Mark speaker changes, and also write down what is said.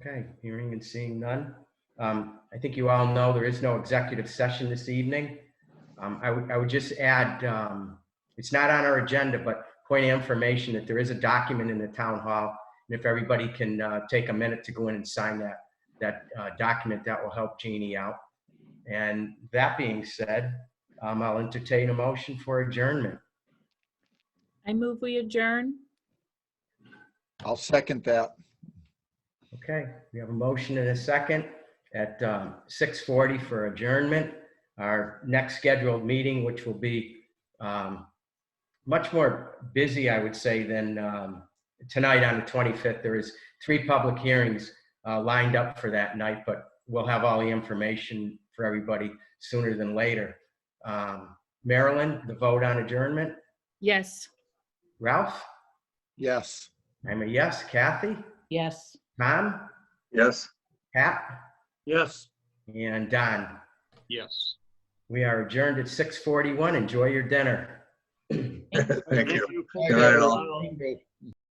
Speaker 1: Okay, hearing and seeing none. Um, I think you all know there is no executive session this evening. Um, I would, I would just add, um, it's not on our agenda, but point of information that there is a document in the town hall. And if everybody can, uh, take a minute to go in and sign that, that, uh, document, that will help Jeannie out. And that being said, um, I'll entertain a motion for adjournment.
Speaker 2: I move we adjourn.
Speaker 3: I'll second that.
Speaker 1: Okay, we have a motion and a second at um, 6:40 for adjournment. Our next scheduled meeting, which will be um, much more busy, I would say, than um, tonight on the 25th. There is three public hearings uh, lined up for that night, but we'll have all the information for everybody sooner than later. Um, Marilyn, the vote on adjournment.
Speaker 2: Yes.
Speaker 1: Ralph?
Speaker 3: Yes.
Speaker 1: I'm a yes. Kathy?
Speaker 2: Yes.
Speaker 1: Tom?
Speaker 4: Yes.
Speaker 1: Pat?
Speaker 4: Yes.
Speaker 1: And Don?
Speaker 4: Yes.
Speaker 1: We are adjourned at 6:41. Enjoy your dinner.
Speaker 4: Thank you.
Speaker 3: Good
Speaker 4: night, all.
Speaker 3: all.